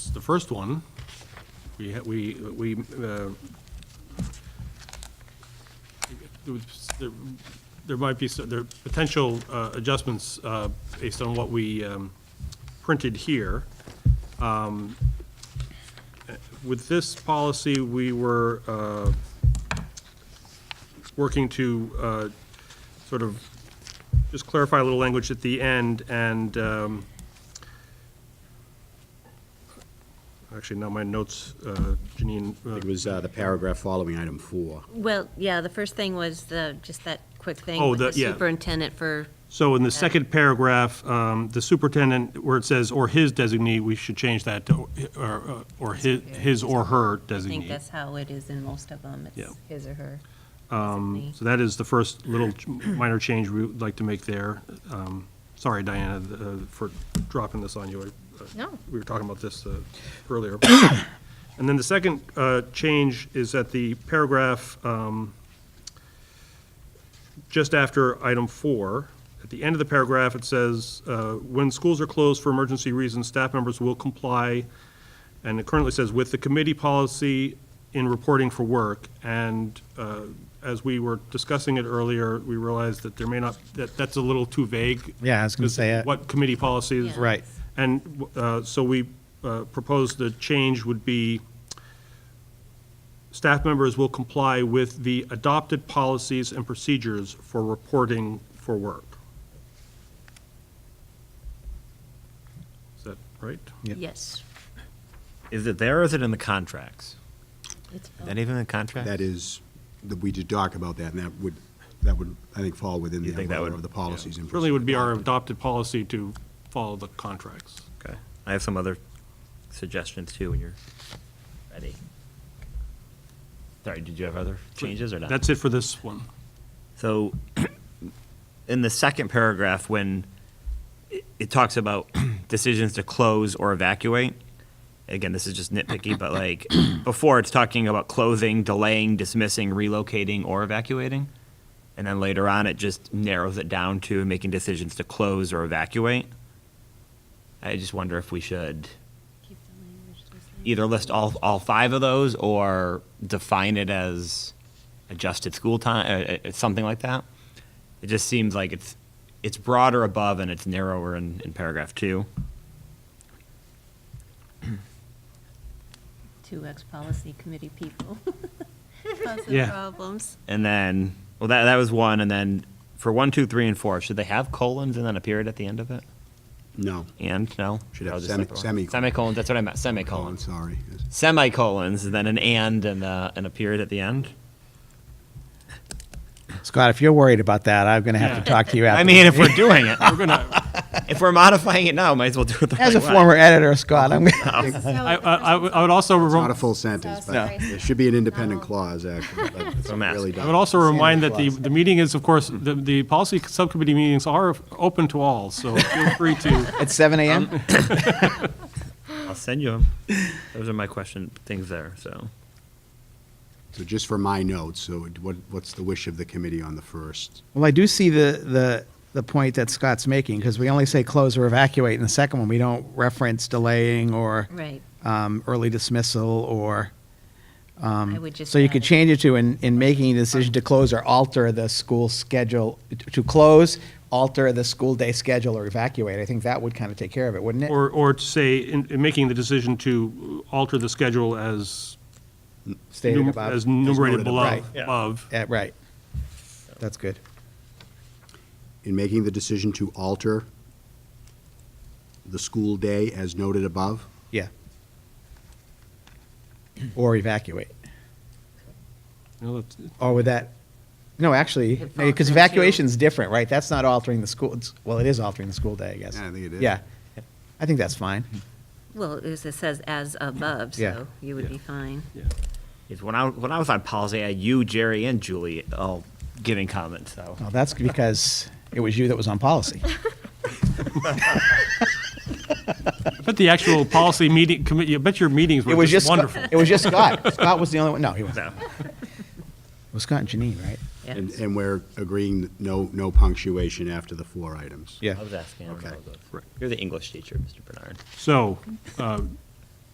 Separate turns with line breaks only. The first one, we, ha- we, we, uh, there was- there- there might be, some- there are potential uh, adjustments uh, based on what we um, printed here. Um, eh, With this policy, we were uh, working to uh, sort of just clarify a little language at the end and um, actually, now my notes, uh, Janine. uh,
It was uh, the paragraph following item four.
Well, yeah, the first thing was the, just that quick thing
Oh,
with the
the- yeah.
superintendent for,
So in the second paragraph, um, the superintendent, where it says, "or his designee," we should change that to, or, uh, or his, his or her
I think
designee.
that's how it is in most of them. It's
Yeah.
his or her. designee.
Um, So that is the first little ch- minor change we would like to make there. Um, Sorry, Diana, uh, for dropping this on you. I- uh,
No.
We were talking about this uh, earlier. And then the second uh, change is that the paragraph, um, just after item four, at the end of the paragraph, it says, uh, "When schools are closed for emergency reasons, staff members will comply," and it currently says, "with the committee policy in reporting for work." And uh, as we were discussing it earlier, we realized that there may not, that that's a little too vague.
Yeah, I was gonna say uh, it.
What committee policy is.
Yeah.
Right.
And uh, so we uh, proposed the change would be, staff members will comply with the adopted policies and procedures for reporting for work. Is that right?
Yeah.
Yes.
Is it there or is it in the contracts?
It's
Is that even in the contract?
That is, that we did talk about that, and that would, that would, I think, fall within
You
the
think that
umbrella of
would-
the policies. and
Really would be our
procedures.
adopted policy to follow the contracts.
Okay. I have some other suggestions too when you're ready. Sorry, did you have other changes or not?
That's it for this one.
So, in the second paragraph, when it- it talks about decisions to close or evacuate, again, this is just nitpicky, but like, before, it's talking about closing, delaying, dismissing, relocating, or evacuating. And then later on, it just narrows it down to making decisions to close or evacuate. I just wonder if we should
Keep the language the same.
either list all, all five of those or define it as adjusted school time, uh, uh, something like that. It just seems like it's, it's broader above and it's narrower in, in paragraph two.
Two ex-policy committee people. Causing
Yeah.
problems.
And then, well, that, that was one. And then for one, two, three, and four, should they have colons and then a period at the end of it?
No.
And, no?
Should have
I'll just
semi-
look at one.
semicolon.
Semicolons, that's what I meant,
Oh, I'm
semicolons.
sorry.
Semicolons, and then an and and a, and a period at the end.
Scott, if you're worried about that, I'm gonna have to talk to you after.
I mean,
the
if we're
meeting.
doing it,
We're gonna,
if we're modifying it now, might as well do it the right
As
way.
a former editor, Scott, I'm, gonna-
Oh. I, I I would I would also,
Not a
rem-
full sentence,
So
but
sorry.
there should be an independent
No.
clause, actually. but it's
I'm asking.
really
I
I
done.
would also remind that the,
Standard clause.
the meeting is, of course, the, the policy subcommittee meetings are open to all, so feel free to
at seven
Um,
AM?
I'll send you them. Those are my question things there. So
So just for my notes, so it- what, what's the wish of the committee on the first?
Well, I do see the, the, the point that Scott's making, because we only say close or evacuate in the second one. We don't reference delaying or,
Right.
um, early dismissal or, um,
I would just.
so you
add
could
it.
change it to in, in making a decision to close or alter the school schedule, to close, alter the school day schedule or evacuate. I think that would kind of take care of it, wouldn't it?
Or, or to say, in, in making the decision to alter the schedule as,
Stated
num-
above.
as enumerated
As noted
below,
above.
Right.
above.
Yeah, Uh, right. That's good.
In making the decision to alter the school day as noted above?
Yeah. Or evacuate.
You know, that's-
Or would that, no, actually, because evacuation's different, right? That's not altering the school, it's- well, it is altering the school day, I guess.
Yeah, I think it is.
Yeah. I think that's fine.
Well, it was- it says as above,
Yeah.
so you would be fine.
it's when I when I was on policy, I had you, Jerry, and Julie all giving comments. So
Well, that's because it was you that was on policy.
I bet the actual policy meeting, committee, I bet your meetings
It
were
was
just
just, Scott-
wonderful.
it was just Scott. Scott was the only one, no, he wasn't.
no.
It was Scott and Janine, right?
Yeah.
And, and we're agreeing that no, no punctuation after the four items?
Yeah.
I was asking. Okay.
Okay.
You're the English teacher, Mr. Bernard.
So, uh,